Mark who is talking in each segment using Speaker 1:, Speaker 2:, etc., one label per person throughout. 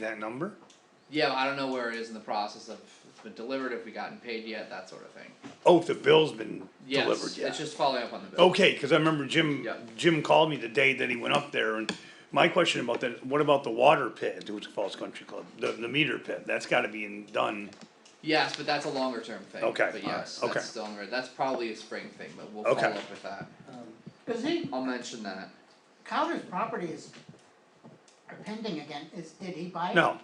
Speaker 1: that number?
Speaker 2: Yeah, I don't know where it is in the process of if it's been delivered, if we gotten paid yet, that sort of thing.
Speaker 1: Oh, if the bill's been
Speaker 2: Yes,
Speaker 1: delivered
Speaker 2: it's
Speaker 1: yet.
Speaker 2: just following up on the bill.
Speaker 1: Okay, cause I remember Jim,
Speaker 2: Yeah.
Speaker 1: Jim called me the day that he went up there and my question about that, is, what about the water pit at Huzik Falls Country Club? The, the meter pit, that's gotta be in- done.
Speaker 2: Yes, but that's a longer term thing.
Speaker 1: Okay,
Speaker 2: But yes,
Speaker 1: alright,
Speaker 2: that's
Speaker 1: okay.
Speaker 2: still on the road. That's probably a spring thing, but we'll
Speaker 1: Okay.
Speaker 2: follow up with that.
Speaker 3: Cause he,
Speaker 2: I'll mention that.
Speaker 3: Crowder's property is are pending again, is, did he buy it?
Speaker 1: No,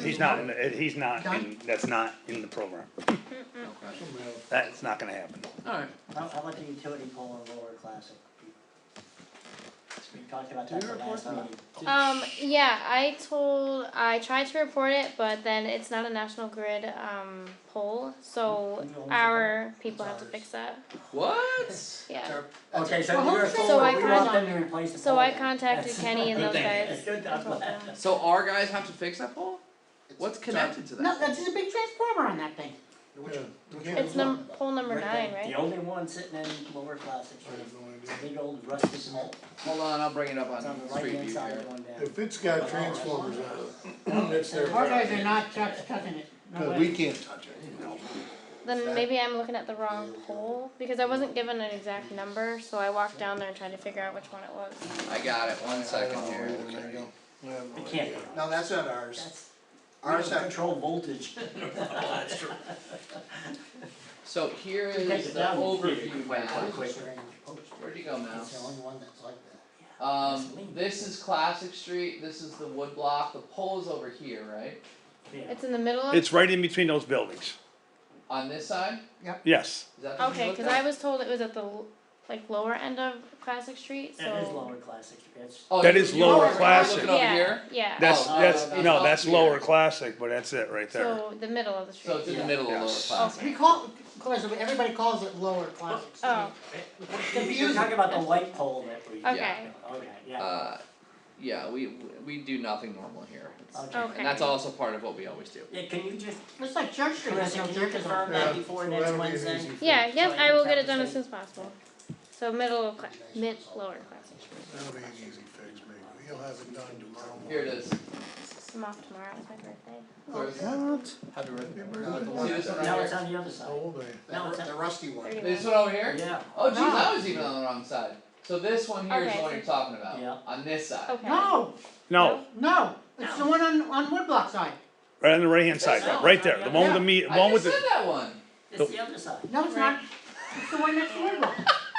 Speaker 1: he's not, in the- he's not, in
Speaker 3: Done?
Speaker 1: that's not in the program.
Speaker 3: Mm.
Speaker 2: Okay.
Speaker 1: That's not gonna happen.
Speaker 2: Alright.
Speaker 4: How, how about the utility pole in Lower Classic? We talked about that
Speaker 2: Do we
Speaker 4: the last
Speaker 2: report
Speaker 4: meeting.
Speaker 2: that?
Speaker 5: Um, yeah, I told, I tried to report it, but then it's not a National Grid, um, poll, so
Speaker 4: No, it's
Speaker 5: our people have to
Speaker 4: ours.
Speaker 5: fix that,
Speaker 2: What?
Speaker 5: yeah.
Speaker 4: Okay, so
Speaker 3: Well,
Speaker 4: you're
Speaker 3: who's
Speaker 4: full,
Speaker 5: So I
Speaker 4: we want them
Speaker 3: contact-
Speaker 4: to replace the pole.
Speaker 5: So I
Speaker 4: then.
Speaker 5: contacted
Speaker 4: That's-
Speaker 5: Kenny and
Speaker 4: Good
Speaker 5: those
Speaker 4: thing.
Speaker 5: guys.
Speaker 4: Good
Speaker 5: I
Speaker 4: job.
Speaker 5: told them.
Speaker 2: So our guys have to fix that pole? What's connected to that?
Speaker 3: No, that's just a big transformer on that thing.
Speaker 6: Which, which one?
Speaker 5: It's num, poll number
Speaker 4: Right
Speaker 5: nine,
Speaker 4: there. The
Speaker 5: right?
Speaker 4: only one sitting in Lower Classic,
Speaker 6: I have no
Speaker 4: it's a
Speaker 6: idea.
Speaker 4: big old rusted pole,
Speaker 2: Hold on, I'll bring it up
Speaker 4: it's on
Speaker 2: on
Speaker 4: the
Speaker 2: street
Speaker 4: right-hand
Speaker 2: view
Speaker 4: side
Speaker 2: here.
Speaker 4: of one down.
Speaker 6: If it's got transformers uh, on it, it's their
Speaker 3: Our guys are
Speaker 6: problem.
Speaker 3: not touch, touching it, no
Speaker 6: But we
Speaker 3: way.
Speaker 6: can't touch it.
Speaker 5: Then maybe I'm looking at the wrong poll, because I wasn't given an exact number, so I walked down there and tried to figure out which one it was.
Speaker 2: I got it, one second here.
Speaker 6: Oh, There you go. I have no
Speaker 4: We can't,
Speaker 6: idea.
Speaker 7: No, that's not ours.
Speaker 4: that's, we
Speaker 7: Ours,
Speaker 4: don't
Speaker 7: are-
Speaker 4: control voltage.
Speaker 2: So here
Speaker 4: Take
Speaker 2: is
Speaker 4: it
Speaker 2: the
Speaker 4: down, you can't
Speaker 2: overview
Speaker 4: quite
Speaker 2: map.
Speaker 4: quick.
Speaker 2: Where'd you go,
Speaker 7: that's the
Speaker 2: mouse?
Speaker 7: only one that's like that.
Speaker 2: Um, this is Classic Street, this is the wood block, the pole is over here, right?
Speaker 4: Yeah.
Speaker 5: It's in the middle of,
Speaker 1: It's right in between those buildings,
Speaker 2: On this side?
Speaker 1: yes.
Speaker 2: Is that the one you
Speaker 5: okay,
Speaker 2: looked
Speaker 5: cause
Speaker 2: at?
Speaker 5: I was told it was at the, l- like, lower end of Classic Street,
Speaker 4: It is
Speaker 5: so.
Speaker 4: Lower Classic, it's,
Speaker 2: Oh,
Speaker 1: That
Speaker 2: you-
Speaker 1: is
Speaker 2: you were-
Speaker 1: lower
Speaker 2: you were
Speaker 1: classic.
Speaker 2: Looking over
Speaker 5: Yeah,
Speaker 2: here?
Speaker 5: yeah,
Speaker 1: That's,
Speaker 2: Oh,
Speaker 1: that's,
Speaker 2: that's
Speaker 1: no,
Speaker 2: up
Speaker 1: that's
Speaker 2: here.
Speaker 1: lower classic, but that's it right there.
Speaker 5: so the middle of the street.
Speaker 2: So it's in the
Speaker 4: Yeah.
Speaker 2: middle of lower
Speaker 1: Yes.
Speaker 2: classic.
Speaker 3: We call, because everybody calls it lower classics.
Speaker 5: Oh,
Speaker 4: you're
Speaker 3: Confusing.
Speaker 4: talking about the light pole that we.
Speaker 5: okay,
Speaker 4: Okay, yeah,
Speaker 2: Uh, yeah, we, we do nothing normal here. It's-
Speaker 4: okay.
Speaker 5: okay.
Speaker 2: And that's also part of what we always do.
Speaker 4: Yeah, can you just,
Speaker 3: It's like Church Street,
Speaker 4: Chris,
Speaker 3: there's no
Speaker 4: can you
Speaker 3: churches on
Speaker 4: confirm
Speaker 3: it.
Speaker 4: that
Speaker 6: Yeah,
Speaker 4: before
Speaker 6: so
Speaker 4: next
Speaker 6: that'll be an
Speaker 4: Wednesday?
Speaker 6: easy fix.
Speaker 5: Yeah, yes,
Speaker 4: So I
Speaker 5: I will
Speaker 4: can
Speaker 5: get
Speaker 4: tell
Speaker 5: it done
Speaker 4: the
Speaker 5: as soon as possible. So middle of class, mid, lower classic.
Speaker 6: That'll be an easy fix, maybe. You'll have it done tomorrow.
Speaker 2: Here it is.
Speaker 5: I'm off tomorrow, it's my birthday.
Speaker 2: Where's-
Speaker 7: Happy
Speaker 6: birthday.
Speaker 7: No, the
Speaker 2: See this one
Speaker 7: one,
Speaker 2: right
Speaker 4: No,
Speaker 2: here?
Speaker 4: it's on the other side.
Speaker 6: How old are you?
Speaker 4: No, it's
Speaker 7: that-
Speaker 4: a-
Speaker 7: the rusty one.
Speaker 2: This one over here?
Speaker 4: Yeah,
Speaker 2: Oh geez, I
Speaker 3: No.
Speaker 2: was even on the wrong side. So this one here is
Speaker 5: Okay,
Speaker 2: the one
Speaker 5: so-
Speaker 2: you're talking about,
Speaker 4: Yeah.
Speaker 2: on this side.
Speaker 5: Okay,
Speaker 3: No,
Speaker 1: No,
Speaker 3: no, it's the one on, on Woodblock side,
Speaker 1: right on the right hand side, right there, the one with the meat, the one with
Speaker 2: I
Speaker 1: the,
Speaker 2: just said that one.
Speaker 4: it's the other side.
Speaker 3: no, it's not, it's the one next to Woodblock.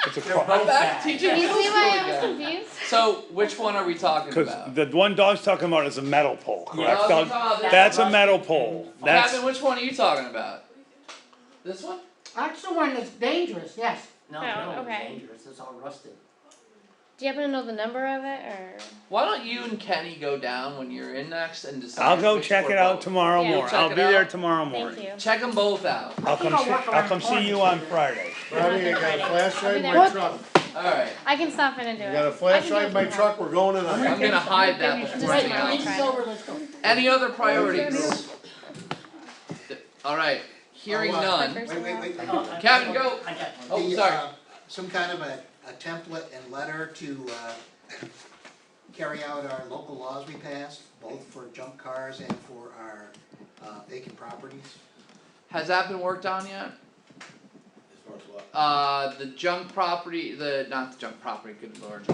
Speaker 1: it's a
Speaker 4: They're
Speaker 1: cro-
Speaker 4: both
Speaker 2: I'm back
Speaker 4: bad.
Speaker 2: teaching
Speaker 5: can you
Speaker 2: middle
Speaker 5: see
Speaker 2: school
Speaker 5: why I was
Speaker 2: again.
Speaker 5: confused?
Speaker 2: So which one are we talking
Speaker 1: Cause
Speaker 2: about?
Speaker 1: the one dog's talking about is a metal pole,
Speaker 4: Yeah.
Speaker 1: correct?
Speaker 2: Oh,
Speaker 1: Dog?
Speaker 2: you're talking about
Speaker 1: That's
Speaker 2: this
Speaker 1: a
Speaker 2: one.
Speaker 1: metal pole, that's,
Speaker 2: Captain, which one are you talking about? This one?
Speaker 3: That's the one that's dangerous, yes.
Speaker 4: No,
Speaker 5: Oh,
Speaker 4: no,
Speaker 5: okay.
Speaker 4: it's dangerous, it's all rusted.
Speaker 5: Do you happen to know the number of it, or?
Speaker 2: Why don't you and Kenny go down when you're in next and decide?
Speaker 1: I'll go
Speaker 2: which
Speaker 1: check
Speaker 2: or
Speaker 1: it out
Speaker 2: both?
Speaker 1: tomorrow
Speaker 5: Yeah.
Speaker 1: morning,
Speaker 2: Check
Speaker 1: I'll
Speaker 2: it
Speaker 1: be there
Speaker 2: out.
Speaker 1: tomorrow
Speaker 5: Thank
Speaker 1: morning.
Speaker 5: you.
Speaker 2: Check them both out.
Speaker 1: I'll come,
Speaker 3: I'll
Speaker 1: see-
Speaker 3: walk
Speaker 1: I'll
Speaker 3: around
Speaker 1: come see you
Speaker 3: corners.
Speaker 1: on Friday.
Speaker 6: Bobby, I got a flashlight in my
Speaker 5: What?
Speaker 6: truck.
Speaker 2: All right.
Speaker 5: I can stop in and do
Speaker 6: I
Speaker 5: it.
Speaker 6: got a flashlight in my truck. We're going tonight.
Speaker 2: I'm gonna hide that before
Speaker 5: Right,
Speaker 2: anything
Speaker 5: I'll
Speaker 2: else.
Speaker 5: try.
Speaker 3: Meeting's over, let's go.
Speaker 2: Any other priorities? All right. Hearing
Speaker 7: Oh, uh,
Speaker 2: none.
Speaker 7: Wait, wait, wait.
Speaker 4: Oh, I-
Speaker 2: Captain, go.
Speaker 4: I got one.
Speaker 2: Oh,
Speaker 7: The,
Speaker 2: sorry.
Speaker 7: uh, Some kind of a, a template and letter to, uh, carry out our local laws we passed, both for junk cars and for our, uh, vacant properties.
Speaker 2: Has that been worked on yet?
Speaker 7: As far as what?
Speaker 2: Uh, the junk property, the not the junk property, good lord,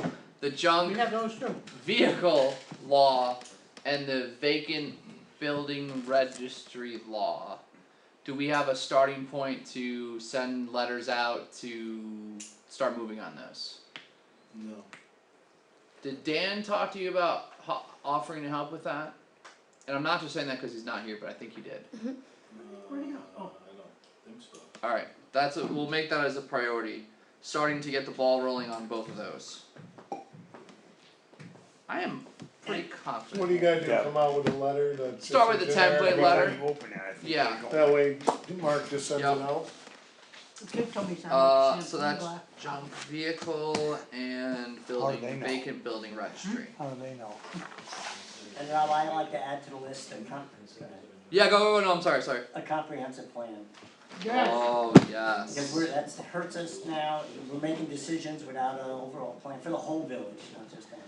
Speaker 2: the
Speaker 3: We
Speaker 2: junk
Speaker 3: have those too.
Speaker 2: vehicle law and the vacant building registry law. Do we have a starting point to send letters out to start moving on those?
Speaker 7: No.
Speaker 2: Did Dan talk to you about ho- offering to help with that? And I'm not just saying that because he's not here, but I think he did.
Speaker 3: Where'd he go? Oh.
Speaker 2: All right, that's a, we'll make that as a priority, starting to get the ball rolling on both of those. I am pretty confident.
Speaker 6: What do you gotta do?
Speaker 1: Yeah.
Speaker 6: Come out with a letter that's.
Speaker 2: Start with
Speaker 6: just
Speaker 2: the template
Speaker 6: generic?
Speaker 2: letter. Yeah.
Speaker 6: That way Mark just sends it
Speaker 2: Yep.
Speaker 6: out.
Speaker 3: The kid told me something.
Speaker 2: Uh,
Speaker 3: Sam
Speaker 2: so
Speaker 3: Greenblatt.
Speaker 2: that's junk vehicle and
Speaker 1: they
Speaker 2: building,
Speaker 1: know?
Speaker 2: vacant building registry.
Speaker 1: How do they know?
Speaker 4: And Rob, I like to add to the list a com-
Speaker 2: Yeah, go, go, go, no, I'm sorry, sorry.
Speaker 4: a comprehensive plan.
Speaker 3: Yes,
Speaker 2: Oh,
Speaker 4: Because
Speaker 2: yes.
Speaker 4: we're, that's, hurts us now, we're making decisions without an overall plan for the whole village, not just that.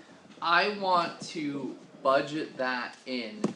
Speaker 2: I want to budget that in